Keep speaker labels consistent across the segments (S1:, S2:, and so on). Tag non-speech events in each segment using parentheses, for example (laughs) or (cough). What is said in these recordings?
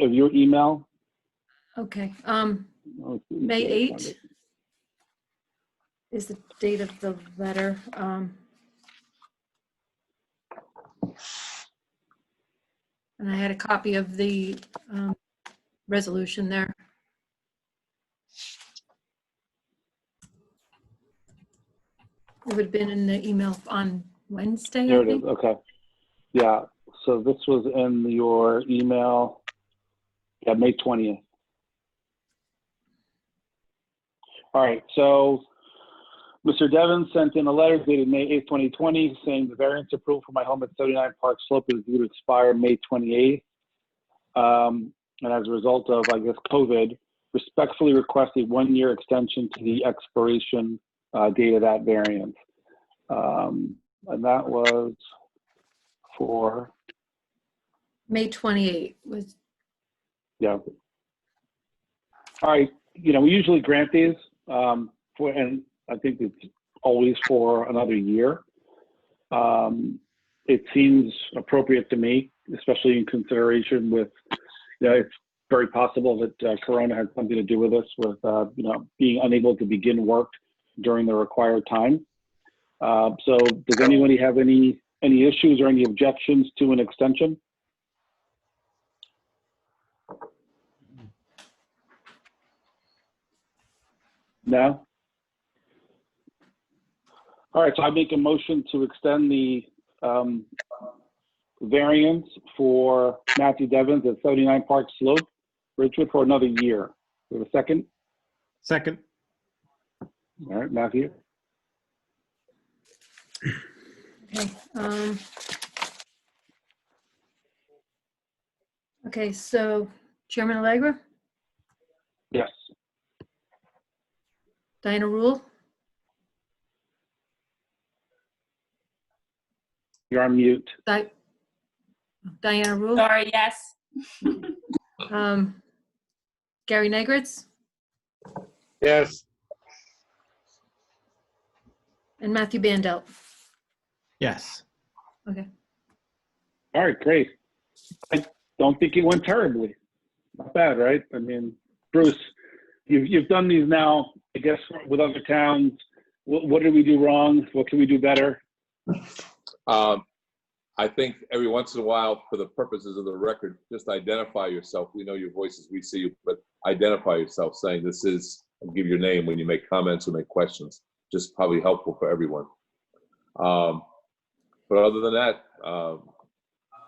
S1: of your email?
S2: Okay, um,
S1: Oh, it's-
S2: May 8 is the date of the letter. um, And I had a copy of the um, resolution there. It would have been in the email on Wednesday,
S1: There
S2: I
S1: it is,
S2: think.
S1: okay. Yeah, so this was in your email, yeah, May 20th. All right, so Mr. Devon sent in a letter dated May 8th, 2020, saying the variance approval for my home at 39 Park Slope is due to expire May 28th. Um, And as a result of, I guess, COVID, respectfully request a one-year extension to the expiration uh, date of that variance. Um, and that was for,
S2: May 28 was,
S1: yeah. All right, you know, we usually grant these, um, for, and I think it's always for another year. Um, it seems appropriate to me, especially in consideration with, you know, it's very possible that uh, Corona had something to do with this, with, uh, you know, being unable to begin work during the required time. Uh, so does anybody have any, any issues or any objections to an extension? No? All right, so I make a motion to extend the um, variance for Matthew Devens at 79 Park Slope, Ridgewood, for another year. Do we have a second?
S3: Second,
S1: All right, Matthew?
S2: okay. um, Okay, so Chairman Allegra,
S1: Yes.
S2: Diana Rule,
S1: You're on mute.
S2: Di- Diana Rule.
S4: Sorry, yes.
S2: Um, Gary Negritz
S5: Yes,
S2: and Matthew Bandel.
S3: yes.
S2: Okay.
S1: All right, great. I don't think it went terribly. Not bad, right? I mean, Bruce, you've, you've done these now, I guess, with other towns. What, what did we do wrong? What can we do better?
S5: um, I think every once in a while, for the purposes of the record, just identify yourself. We know your voices, we see you, but identify yourself, saying this is, and give your name when you make comments or make questions. Just probably helpful for everyone. Um, but other than that, um,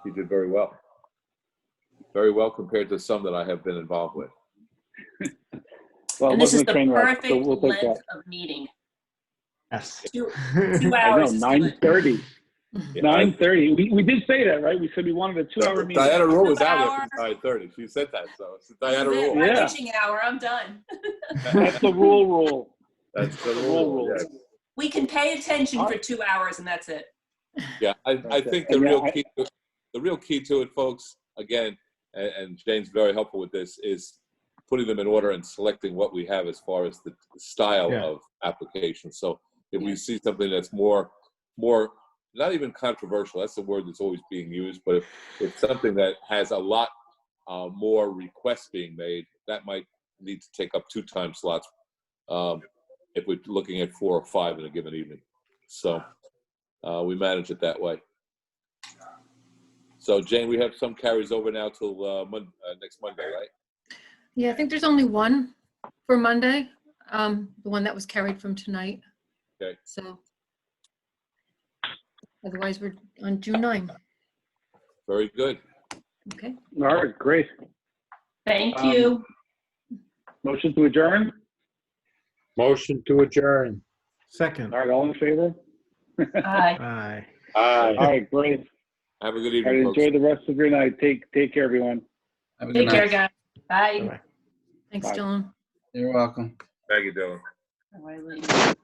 S5: you did very well. Very well compared to some that I have been involved with.
S1: Well, it
S4: And this is
S1: wasn't
S4: the
S1: a train wreck,
S4: perfect
S1: so we'll take that.
S4: length of meeting.
S3: Yes.
S4: Two,
S1: (laughs)
S4: two
S1: I know,
S4: hours is
S1: nine
S4: good.
S1: thirty.
S5: Yeah,
S1: Nine thirty. We, we did say that, right? We said we wanted a two-hour meeting.
S5: Diana Rule was out
S4: Hour.
S5: after nine thirty. She said that, so it's Diana
S4: This is it.
S5: Rule.
S4: My
S1: Yeah.
S4: Pitching hour, I'm done.
S1: That's the rule, rule.
S5: That's the
S1: The rule,
S5: rule.
S1: rule.
S5: yes.
S4: We can pay attention for two hours and that's it.
S5: Yeah, I, I
S1: Okay.
S5: think the
S1: uh, And
S5: real
S1: I-
S5: key, to- the real key to it, folks, again, and, and Jane's very helpful with this, is putting them in order and selecting what we have as far as the style
S3: Yeah.
S5: of application. So if we see something that's more, more, not even controversial, that's the word that's always being used, but if, if something that has a lot uh, more requests being made, that might need to take up two time slots um, if we're looking at four or five in a given evening. So uh, we manage it that way. So Jane, we have some carries over now till uh, Mon- uh, next Monday, right?
S2: Yeah, I think there's only one for Monday, um, the one that was carried from tonight.
S5: Okay.
S2: So. Otherwise, we're on June 9.
S5: Very good.
S2: Okay.
S1: All right, great.
S4: Thank
S1: Um,
S4: you. (laughs)
S1: Motion to adjourn?
S5: Motion to adjourn.
S3: (laughs) Second,
S1: All right, all in favor?
S4: Bye.
S3: aye.
S1: All right, great.
S5: Have a good
S1: All right,
S5: evening, folks.
S1: enjoy the rest of your night. Take, take care, everyone.
S6: Have a good
S4: Take care,
S6: night.
S4: guys. Bye.
S3: Bye-bye.
S2: Thanks,
S1: Bye.
S2: Dylan.
S6: You're welcome.
S5: Thank you, Dylan.
S4: Bye, ladies.